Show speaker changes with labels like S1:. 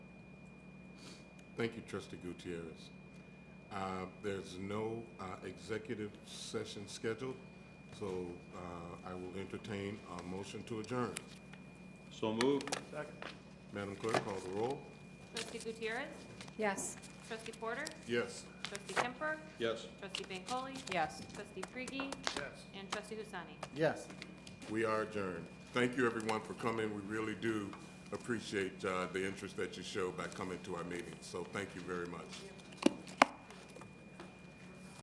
S1: Thank you, Trustee Gutierrez. Uh, There's no uh, executive session scheduled, so uh, I will entertain a motion to adjourn.
S2: So moved.
S1: Madam Clerk, call the roll.
S3: Trustee Gutierrez.
S4: Yes.
S3: Trustee Porter.
S1: Yes.
S3: Trustee Kemper.
S2: Yes.
S3: Trustee Bancole.
S4: Yes.
S3: Trustee Frigie. Yes. And Trustee Husseini.
S5: Yes.
S1: We are adjourned. Thank you, everyone, for coming. We really do appreciate uh, the interest that you show by coming to our meetings, so thank you very much.